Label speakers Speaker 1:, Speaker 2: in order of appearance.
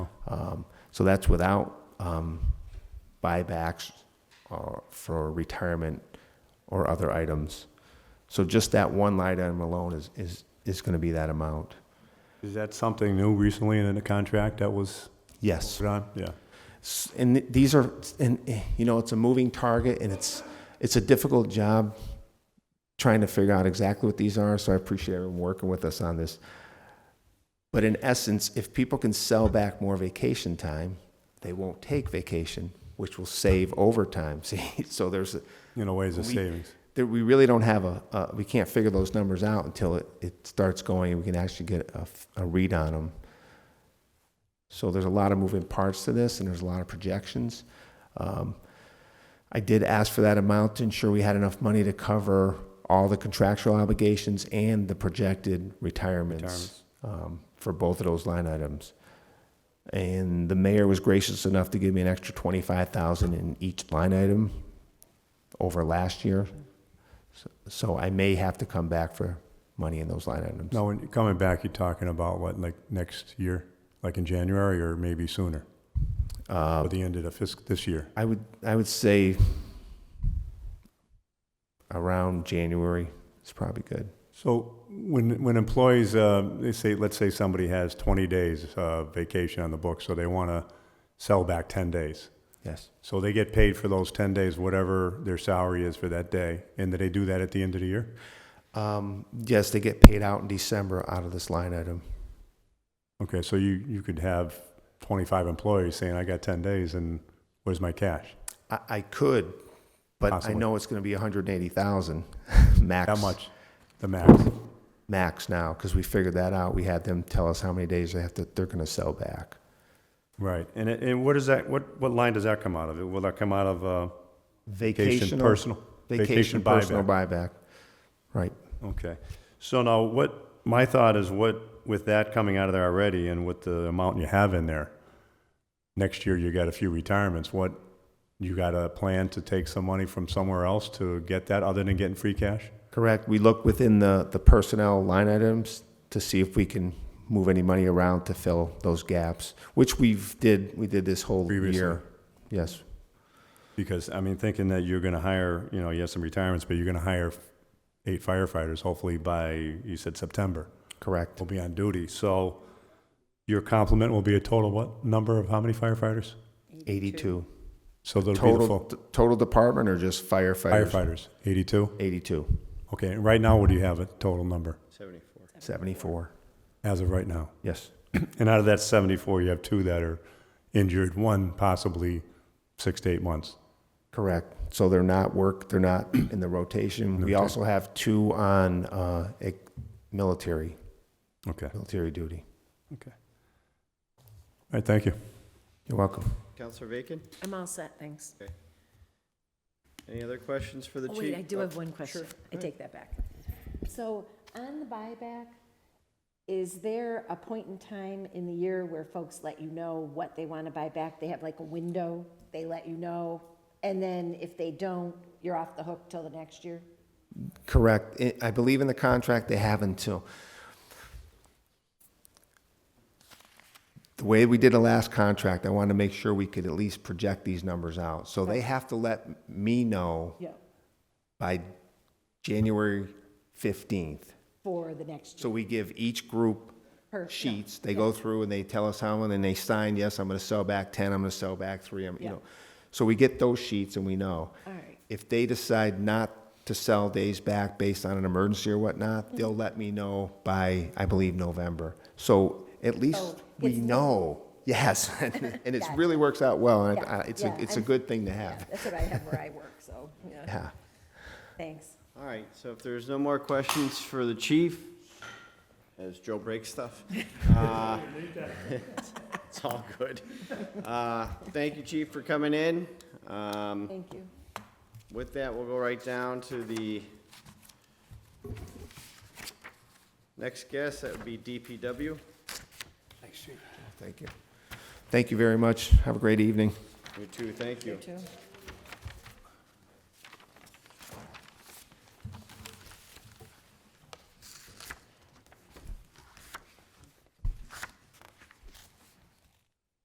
Speaker 1: Um, So that's without um, buybacks or for retirement or other items. So just that one line item alone is, is, is going to be that amount.
Speaker 2: Is that something new recently in the contract that was
Speaker 1: Yes.
Speaker 2: put on? Yeah.
Speaker 1: S- and th- these are and eh, you know it's a moving target and it's it's a difficult job trying to figure out exactly what these are so i appreciate everyone working with us on this but in essence if people can sell back more vacation time they won't take vacation which will save overtime see so there's a,
Speaker 2: You know, ways of
Speaker 1: We-
Speaker 2: savings.
Speaker 1: there, we really don't have a, a we can't figure those numbers out until it, it starts going and we can actually get a, f- a read on them so there's a lot of moving parts to this and there's a lot of projections um, i did ask for that amount to ensure we had enough money to cover all the contractual obligations and the projected retirements,
Speaker 2: Retirements.
Speaker 1: Um, for both of those line items and the mayor was gracious enough to give me an extra 25000 in each line item over last year so I may have to come back for money in those line items.
Speaker 2: Now, when you're coming back, you're talking about what, like next year, like in January or maybe sooner? At the end of the fiscal, this year?
Speaker 1: Uh, I would, I would say around January is probably good.
Speaker 2: So when, when employees, uh, they say, let's say somebody has 20 days uh, vacation on the book, so they want to sell back 10 days.
Speaker 1: Yes.
Speaker 2: So they get paid for those 10 days, whatever their salary is for that day, and do they do that at the end of the year?
Speaker 1: Um, yes, they get paid out in December out of this line item.
Speaker 2: Okay, so you, you could have 25 employees saying, I got 10 days, and where's my cash?
Speaker 1: I, I could, but I
Speaker 2: Possibly.
Speaker 1: know it's going to be 180,000 max.
Speaker 2: That much, the max.
Speaker 1: Max now, because we figured that out. We had them tell us how many days they have to, they're going to sell back.
Speaker 2: Right, and, it- and what is that, what, what line does that come out of? Will that come out of uh, vacation,
Speaker 1: Vacational-
Speaker 2: personal?
Speaker 1: Vacation, personal buyback. Right.
Speaker 2: Okay. So now what, my thought is what, with that coming out of there already and with the amount you have in there, next year you got a few retirements, what, you got a plan to take some money from somewhere else to get that other than getting free cash?
Speaker 1: Correct. We look within the, the personnel line items to see if we can move any money around to fill those gaps, which we've did, we did this whole
Speaker 2: Previously.
Speaker 1: year. Yes,
Speaker 2: Because, I mean, thinking that you're gonna hire, you know, you have some retirements, but you're gonna hire eight firefighters hopefully by, you said September,
Speaker 1: correct.
Speaker 2: will be on duty. So your complement will be a total what, number of how many firefighters?
Speaker 1: Eighty-two.
Speaker 2: So that'll be the
Speaker 1: Total,
Speaker 2: full
Speaker 1: t- total department or just firefighters?
Speaker 2: firefighters, eighty-two?
Speaker 1: Eighty-two,
Speaker 2: Okay, and right now, what do you have a total number
Speaker 1: seventy-four.
Speaker 2: as of right now?
Speaker 1: Yes,
Speaker 2: And out of that 74, you have two that are injured, one possibly six to eight months.
Speaker 1: correct. So they're not work, they're not in the rotation. We
Speaker 2: Okay.
Speaker 1: also have two on, uh, ex- military,
Speaker 2: Okay. All
Speaker 1: military duty.
Speaker 2: right, thank you.
Speaker 1: You're welcome.
Speaker 3: Counselor Bacon,
Speaker 4: I'm all set, thanks.
Speaker 3: any other questions for the
Speaker 4: Oh,
Speaker 3: chief?
Speaker 4: wait, I do have one
Speaker 3: Sure,
Speaker 4: question.
Speaker 3: go
Speaker 4: I
Speaker 3: ahead.
Speaker 4: take that back. So on the buyback, is there a point in time in the year where folks let you know what they want to buy back? They have like a window, they let you know, and then if they don't, you're off the hook till the next year?
Speaker 1: Correct. I- I believe in the contract, they have until. The way we did the last contract, I wanted to make sure we could at least project these numbers out. So they have to let me know
Speaker 4: Yeah.
Speaker 1: by January 15th.
Speaker 4: For the next
Speaker 1: So
Speaker 4: year?
Speaker 1: we give each group
Speaker 4: Per- yeah,
Speaker 1: sheets. They go through and they tell us how, and then they sign, yes, I'm going to sell back 10, I'm going to sell back 3, I'm, you
Speaker 4: Yeah.
Speaker 1: know. So we get those sheets and we know.
Speaker 4: All right.
Speaker 1: If they decide not to sell days back based on an emergency or
Speaker 4: Mm-hmm.
Speaker 1: whatnot, they'll let me know by, I believe, November. So at
Speaker 4: Oh,
Speaker 1: least we
Speaker 4: it's not-
Speaker 1: know, yes, and it really works out well, and I- I- it's, a
Speaker 4: Yeah,
Speaker 1: it's a
Speaker 4: I'm-
Speaker 1: good thing to
Speaker 4: Yeah,
Speaker 1: have.
Speaker 4: That's what I have where I work, so, yeah,
Speaker 1: Yeah.
Speaker 4: thanks.
Speaker 3: All right, so if there's no more questions for the chief, as Joe breaks stuff. uh, It's all good. Uh, Thank you, chief, for coming in. Um,
Speaker 4: Thank you.
Speaker 3: With that, we'll go right down to the next guest, that would be DPW.
Speaker 1: Thank you. Thank you very much. Have a great evening.
Speaker 3: You too, thank you.
Speaker 4: too.